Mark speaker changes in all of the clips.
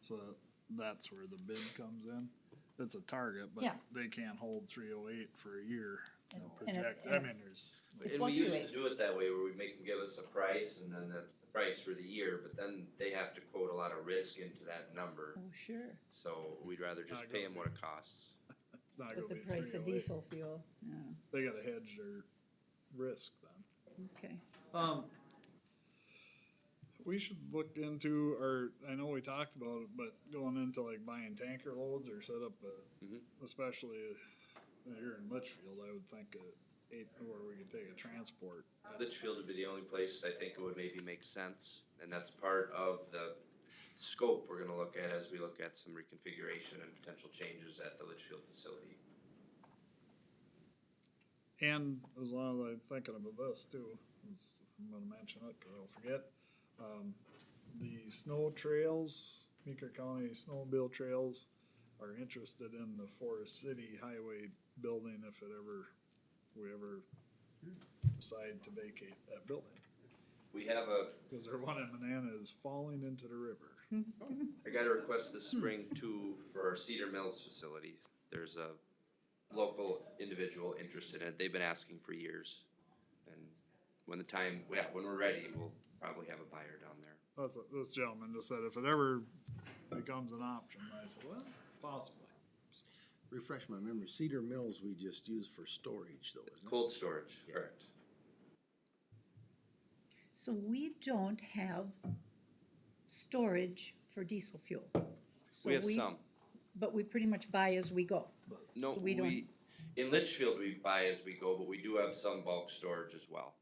Speaker 1: So that, that's where the bid comes in. It's a target, but
Speaker 2: Yeah.
Speaker 1: they can't hold three oh eight for a year and
Speaker 2: And- and it-
Speaker 1: project, I
Speaker 2: and-
Speaker 1: mean, there's.
Speaker 2: It
Speaker 3: And we usually
Speaker 2: fluctuates.
Speaker 3: do it that way where we make them give us a price and then that's the price for the year, but then they have to quote a lot of risk into that number.
Speaker 2: Oh, sure,
Speaker 3: So we'd rather
Speaker 1: It's
Speaker 3: just
Speaker 1: not
Speaker 3: pay
Speaker 1: gonna
Speaker 3: them what it costs.
Speaker 1: It's not gonna
Speaker 2: with the
Speaker 1: be
Speaker 2: price
Speaker 1: three
Speaker 2: of
Speaker 1: oh eight.
Speaker 2: diesel fuel, yeah,
Speaker 1: They gotta hedge their risk then.
Speaker 2: okay.
Speaker 1: Um, we should look into, or I know we talked about it, but going into like buying tanker loads or set up
Speaker 3: Mhm.
Speaker 1: a, especially here in Litchfield, I would think a eight, where we could take a transport.
Speaker 3: Litchfield would be the only place I think it would maybe make sense, and that's part of the scope we're gonna look at as we look at some reconfiguration and potential changes at the Litchfield facility.
Speaker 1: And as long as I'm thinking about this too, it's- I'm gonna mention it, cause I'll forget. Um, the snow trails, Meeker County Snowmobile Trails are interested in the Forest City Highway building if it ever, we ever decide to vacate that building.
Speaker 3: We have a,
Speaker 1: Cause their one in Manana is falling into the river.
Speaker 3: I got a request this spring too for our Cedar Mills facility. There's a local individual interested in it. They've been asking for years. And when the time, yeah, when we're ready, we'll probably have a buyer down there.
Speaker 1: That's, what this gentleman just said if it ever becomes an option, I said, well, possibly.
Speaker 4: refresh my memory, Cedar Mills we just use for storage though, isn't it?
Speaker 3: Cold storage,
Speaker 4: Yeah.
Speaker 3: correct.
Speaker 2: So we don't have storage for diesel fuel. So
Speaker 3: We have some.
Speaker 2: But we pretty much buy as we go.
Speaker 3: No,
Speaker 2: So we don't-
Speaker 3: we, in Litchfield, we buy as we go, but we do have some bulk storage as well.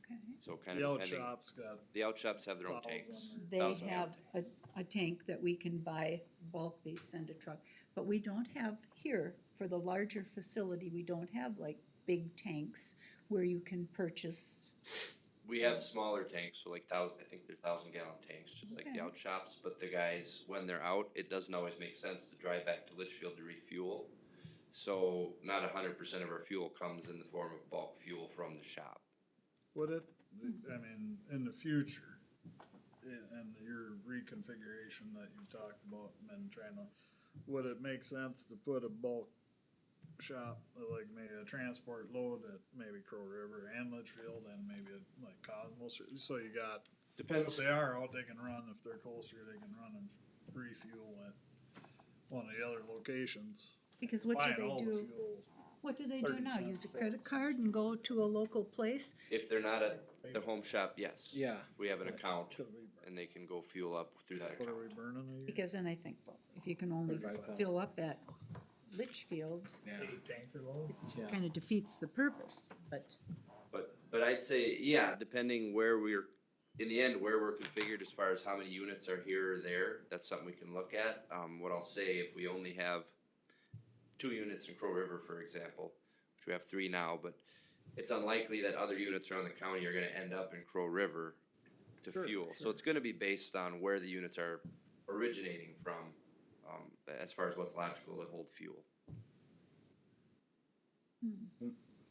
Speaker 2: Okay.
Speaker 3: So kind
Speaker 1: The
Speaker 3: of
Speaker 1: out
Speaker 3: depending.
Speaker 1: shop's got
Speaker 3: The out shops have their own tanks.
Speaker 1: thousand
Speaker 2: They
Speaker 3: Thousand
Speaker 2: have a, a tank that we can buy bulk, they send a truck, but we don't have here, for the larger facility, we don't have like big tanks where you can purchase.
Speaker 3: We have smaller tanks, so like thousand, I think they're thousand gallon tanks, just like
Speaker 2: Okay.
Speaker 3: the out shops, but the guys, when they're out, it doesn't always make sense to drive back to Litchfield to refuel. So not a hundred percent of our fuel comes in the form of bulk fuel from the shop.
Speaker 1: Would it, I mean, in the future, i- and your reconfiguration that you've talked about and been trying to, would it make sense to put a bulk shop, like maybe a transport load at maybe Crow River and Litchfield and maybe at, like Cosmos, or- so you got, if
Speaker 3: Depends.
Speaker 1: they are out, they can run, if they're closer, they can run and refuel at one of the other locations.
Speaker 2: Because what do
Speaker 1: Buying
Speaker 2: they
Speaker 1: all the
Speaker 2: do,
Speaker 1: fuel,
Speaker 2: what do they do
Speaker 1: 30
Speaker 2: now,
Speaker 1: cents.
Speaker 2: use a credit card and go to a local place?
Speaker 3: If they're not at their home shop, yes.
Speaker 4: Yeah.
Speaker 3: We have an account
Speaker 1: Could we burn-
Speaker 3: and they can go fuel up through that
Speaker 1: What
Speaker 3: account.
Speaker 1: are we burning a year?
Speaker 2: Because then I think, well, if you can only
Speaker 4: Thirty-five.
Speaker 2: fill up at Litchfield,
Speaker 1: Eight tanker loads?
Speaker 4: Yeah.
Speaker 2: kinda defeats the purpose, but.
Speaker 3: But but I'd say yeah, depending where we're in the end where we're configured as far as how many units are here or there, that's something we can look at. Um, what I'll say if we only have two units in Crow River, for example, which we have three now, but it's unlikely that other units around the county are going to end up in Crow River to
Speaker 1: Sure,
Speaker 3: fuel. So
Speaker 1: sure.
Speaker 3: it's going to be based on where the units are originating from, um, as far as what's logical to hold fuel.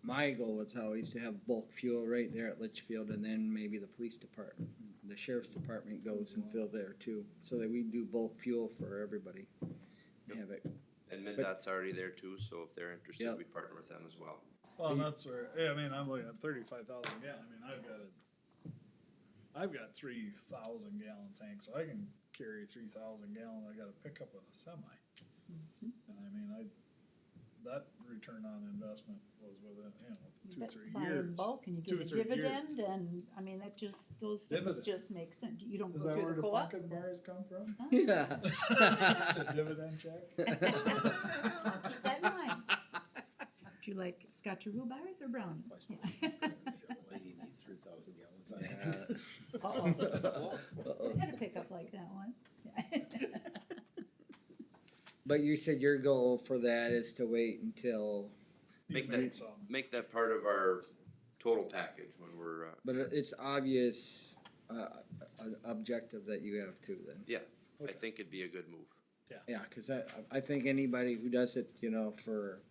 Speaker 5: My goal was always to have bulk fuel right there at Litchfield and then maybe the police department, the sheriff's department goes and fill there too. So that we do bulk fuel for everybody.
Speaker 3: Yep.
Speaker 5: Have it,
Speaker 3: And MinDOT's already there too, so if they're interested,
Speaker 5: Yep.
Speaker 3: we partner with them as well.
Speaker 1: Well, and that's where, yeah, I mean, I'm looking at thirty-five thousand gallon, I mean, I've got a, I've got three thousand gallon tank, so I can carry three thousand gallon, I gotta pick up with a semi.
Speaker 2: Mm-hmm.
Speaker 1: And I mean, I, that return on investment was within, you know, two,
Speaker 2: But
Speaker 1: three
Speaker 2: buy in
Speaker 1: years.
Speaker 2: Bulk and you
Speaker 1: Two,
Speaker 2: get a
Speaker 1: three years.
Speaker 2: dividend and, I mean, that just, those things
Speaker 1: Dividend.
Speaker 2: just make sense. You don't
Speaker 1: Is
Speaker 2: go
Speaker 1: that
Speaker 2: through
Speaker 1: where
Speaker 2: the
Speaker 1: the
Speaker 2: co-op.
Speaker 1: pumpkin bars come from?
Speaker 5: yeah.
Speaker 1: The dividend check?
Speaker 2: I'll keep that in mind. Do you like scotcheroo bars or brownie?
Speaker 4: Lady needs three thousand gallons.
Speaker 2: Uh-oh. Had a pickup like that once.
Speaker 5: But you said your goal for that is to wait until,
Speaker 1: You
Speaker 3: Make
Speaker 1: made
Speaker 3: that-
Speaker 1: some.
Speaker 3: make that part of our total package when we're, uh,
Speaker 5: but it's obvious, uh, an objective that you have too then.
Speaker 3: yeah, I
Speaker 1: Okay.
Speaker 3: think it'd be a good move.
Speaker 5: Yeah, cause I, I think anybody who does it, you know, for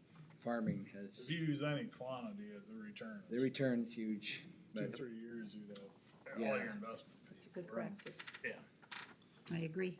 Speaker 5: farming has,
Speaker 1: If you use any quantity, the return
Speaker 5: the
Speaker 1: is
Speaker 5: return's huge.
Speaker 1: two,
Speaker 5: but-
Speaker 1: three years, you'd have all
Speaker 5: Yeah.
Speaker 1: your investment.
Speaker 2: It's a good
Speaker 1: paid for.
Speaker 2: practice.
Speaker 1: Yeah.
Speaker 2: I agree.